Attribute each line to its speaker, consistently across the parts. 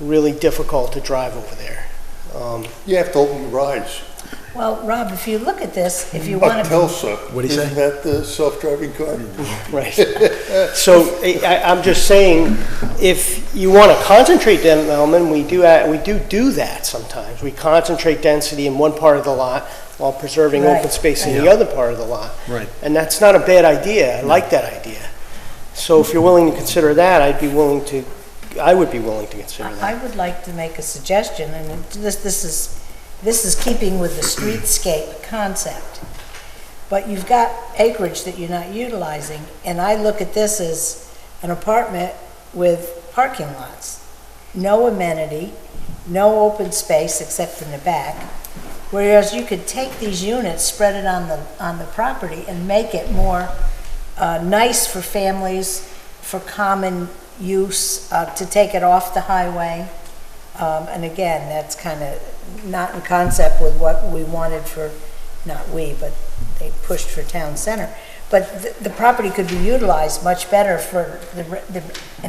Speaker 1: really difficult to drive over there. Um,
Speaker 2: You have to open the rides.
Speaker 3: Well, Rob, if you look at this, if you
Speaker 2: Up
Speaker 3: want to,
Speaker 2: Tulsa.
Speaker 4: What'd he say?
Speaker 2: Isn't that the self-driving car?
Speaker 1: Right. So I- I, I'm just saying, if you want to concentrate development, we do, a- we do do that sometimes. We concentrate density in one part of the lot while preserving open
Speaker 3: Right,
Speaker 1: space in the
Speaker 4: right.
Speaker 1: other part of the lot.
Speaker 4: Right.
Speaker 1: And that's not a bad idea. I like that idea. So if you're willing to consider that, I'd be willing to, I would be willing to consider that.
Speaker 3: I would like to make a suggestion, and this, this is, this is keeping with the streetscape concept. But you've got acreage that you're not utilizing, and I look at this as an apartment with parking lots. No amenity, no open space except in the back. Whereas you could take these units, spread it on the, on the property and make it more uh, nice for families, for common use, uh, to take it off the highway. Um, And again, that's kind of not in concept with what we wanted for, not we, but they pushed for town center. But the- the property could be utilized much better for the re- the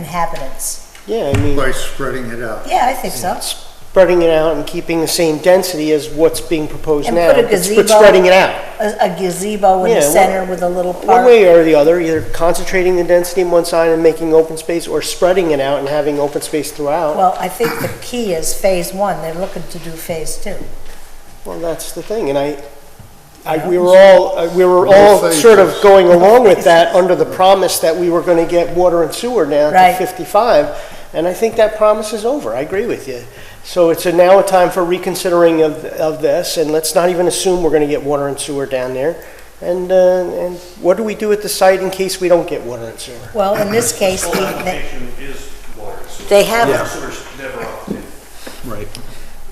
Speaker 3: inhabitants.
Speaker 1: Yeah, I mean,
Speaker 2: By spreading it out.
Speaker 3: Yeah, I think so.
Speaker 1: spreading it out and keeping the same density as what's being proposed
Speaker 3: And
Speaker 1: now.
Speaker 3: put a
Speaker 1: but s-
Speaker 3: gazebo-
Speaker 1: But spreading it out.
Speaker 3: A a gazebo in
Speaker 1: Yeah,
Speaker 3: the
Speaker 1: one-
Speaker 3: center with a little park.
Speaker 1: One way or the other, either concentrating the density in one side and making open space, or spreading it out and having open space throughout.
Speaker 3: Well, I think the key is phase one, they're looking to do phase two.
Speaker 1: Well, that's the thing, and I, I, we were all, uh, we were all
Speaker 2: Well, thank
Speaker 1: sort of
Speaker 2: you.
Speaker 1: going along with that under the promise that we were gonna get water and sewer down to
Speaker 3: Right.
Speaker 1: fifty-five, and I think that promise is over, I agree with you. So it's a now a time for reconsidering of, of this, and let's not even assume we're gonna get water and sewer down there. And, uh, and what do we do at the site in case we don't get water and sewer?
Speaker 3: Well, in this case,
Speaker 5: Full
Speaker 3: we- they-
Speaker 5: application is water and sewer.
Speaker 3: They have-
Speaker 5: Water and sewer's never off the table.
Speaker 4: Right.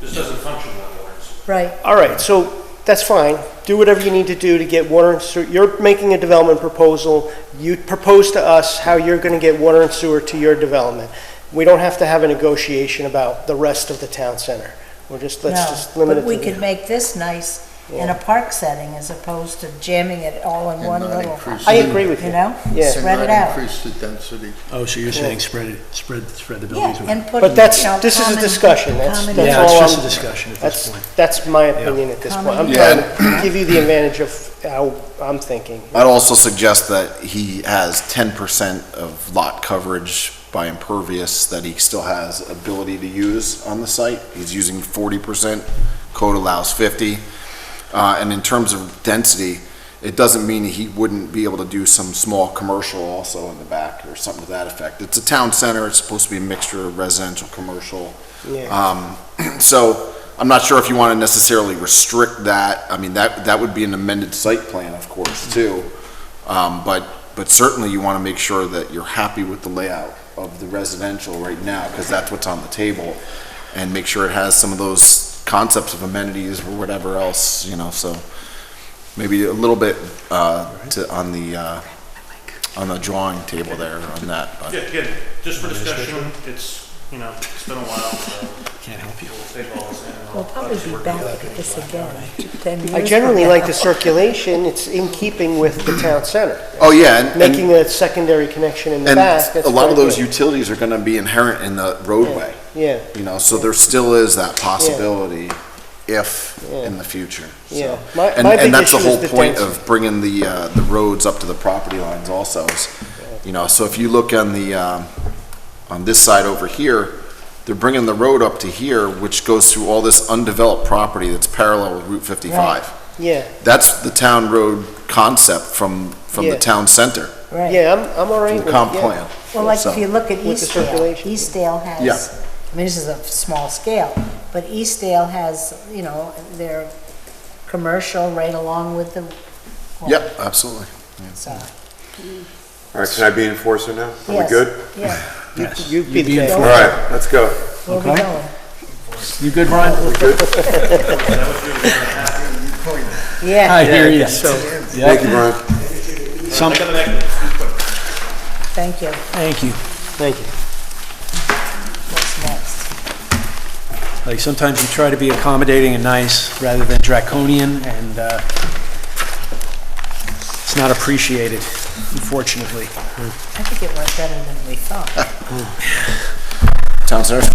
Speaker 5: This doesn't function on water and sewer.
Speaker 3: right,
Speaker 1: All right, so that's fine. Do whatever you need to do to get water and sewer. You're making a development proposal. You propose to us how you're going to get water and sewer to your development. We don't have to have a negotiation about the rest of the town center. We're just, let's
Speaker 3: no.
Speaker 1: just limit it
Speaker 3: But
Speaker 1: to.
Speaker 3: we could make this nice in a park setting as opposed to jamming it all in
Speaker 2: And
Speaker 3: one
Speaker 2: not
Speaker 3: little.
Speaker 2: increase
Speaker 1: I agree with you.
Speaker 3: You know?
Speaker 1: Yeah.
Speaker 3: Spread
Speaker 2: And
Speaker 3: it
Speaker 2: not
Speaker 3: out.
Speaker 2: Increase the density.
Speaker 4: Oh, so you're saying spread it, spread, spread the
Speaker 3: Yeah,
Speaker 4: buildings.
Speaker 3: and put,
Speaker 1: But that's,
Speaker 3: you know,
Speaker 1: this is a
Speaker 3: common-
Speaker 1: discussion. That's,
Speaker 3: common
Speaker 1: that's
Speaker 4: Yeah,
Speaker 1: all
Speaker 4: it's just
Speaker 1: I'm-
Speaker 4: a discussion at this point.
Speaker 1: That's, that's my opinion at this point. I'm
Speaker 3: Common-
Speaker 1: trying to give you the advantage of how I'm thinking.
Speaker 6: I'd also suggest that he has ten percent of lot coverage by impervious that he still has ability to use on the site. He's using forty percent, code allows fifty. Uh, and in terms of density, it doesn't mean he wouldn't be able to do some small commercial also in the back or something to that effect. It's a town center, it's supposed to be a mixture of residential, commercial.
Speaker 1: Yeah.
Speaker 6: Um, so I'm not sure if you want to necessarily restrict that. I mean, that, that would be an amended site plan, of course, too. Um, but, but certainly you want to make sure that you're happy with the layout of the residential right now, because that's what's on the table. And make sure it has some of those concepts of amenities or whatever else, you know, so maybe a little bit, uh, to, on the, uh, on the drawing table there on that. but-
Speaker 5: Yeah, again, just for discussion, it's, you know, it's been a while, so
Speaker 4: Can't help you.
Speaker 5: we'll take all this in. and
Speaker 3: We'll
Speaker 5: I'll
Speaker 3: probably
Speaker 5: just
Speaker 3: be
Speaker 5: work
Speaker 3: back
Speaker 5: together.
Speaker 3: at this again, in 10 years.
Speaker 1: I
Speaker 3: from
Speaker 1: generally
Speaker 3: now.
Speaker 1: like the circulation. It's in keeping with the town center.
Speaker 6: Oh, yeah, and- and-
Speaker 1: making a secondary connection in the
Speaker 6: And
Speaker 1: back. that's
Speaker 6: a lot of
Speaker 1: quite
Speaker 6: those
Speaker 1: good.
Speaker 6: utilities are gonna be inherent in the roadway.
Speaker 1: Yeah,
Speaker 6: You know, so there still is that possibility if in the future. so.
Speaker 1: Yeah. My-
Speaker 6: And,
Speaker 1: my big
Speaker 6: and that's the
Speaker 1: issue is
Speaker 6: whole
Speaker 1: the
Speaker 6: point
Speaker 1: density.
Speaker 6: of bringing the, uh, the roads up to the property lines also. is, You know, so if you look on the, um, on this side over here, they're bringing the road up to here, which goes through all this undeveloped property that's parallel with Route fifty-five.
Speaker 1: yeah,
Speaker 6: That's the town road concept from, from
Speaker 1: Yeah.
Speaker 6: the town center,
Speaker 3: Right.
Speaker 1: yeah, I'm, I'm all right
Speaker 6: from
Speaker 1: with
Speaker 6: the
Speaker 1: it.
Speaker 6: comp
Speaker 1: yeah.
Speaker 6: plan.
Speaker 3: Well, like
Speaker 6: So-
Speaker 3: if you look at
Speaker 1: With the
Speaker 3: Eastdale,
Speaker 1: circulation.
Speaker 3: Eastdale
Speaker 6: Yeah.
Speaker 3: has, I mean, this is a small scale, but Eastdale has, you know, their commercial right along with the.
Speaker 6: Yep, absolutely.
Speaker 3: So,
Speaker 7: All right, can I be enforcer now? Are we
Speaker 3: yes,
Speaker 7: good?
Speaker 3: Yeah,
Speaker 4: Yes.
Speaker 1: you
Speaker 4: You'd
Speaker 1: be the best.
Speaker 7: All right, let's go.
Speaker 3: we'll be
Speaker 4: Okay.
Speaker 3: going.
Speaker 4: You good, Brian?
Speaker 3: Yeah,
Speaker 4: I hear you. Yeah.
Speaker 7: Thank you, Brian.
Speaker 4: Some,
Speaker 3: thank you.
Speaker 4: thank you.
Speaker 1: Thank you.
Speaker 3: What's next?
Speaker 4: Like, sometimes you try to be accommodating and nice rather than draconian, and uh, it's not appreciated, unfortunately.
Speaker 3: I think it went better than we thought.
Speaker 6: Town center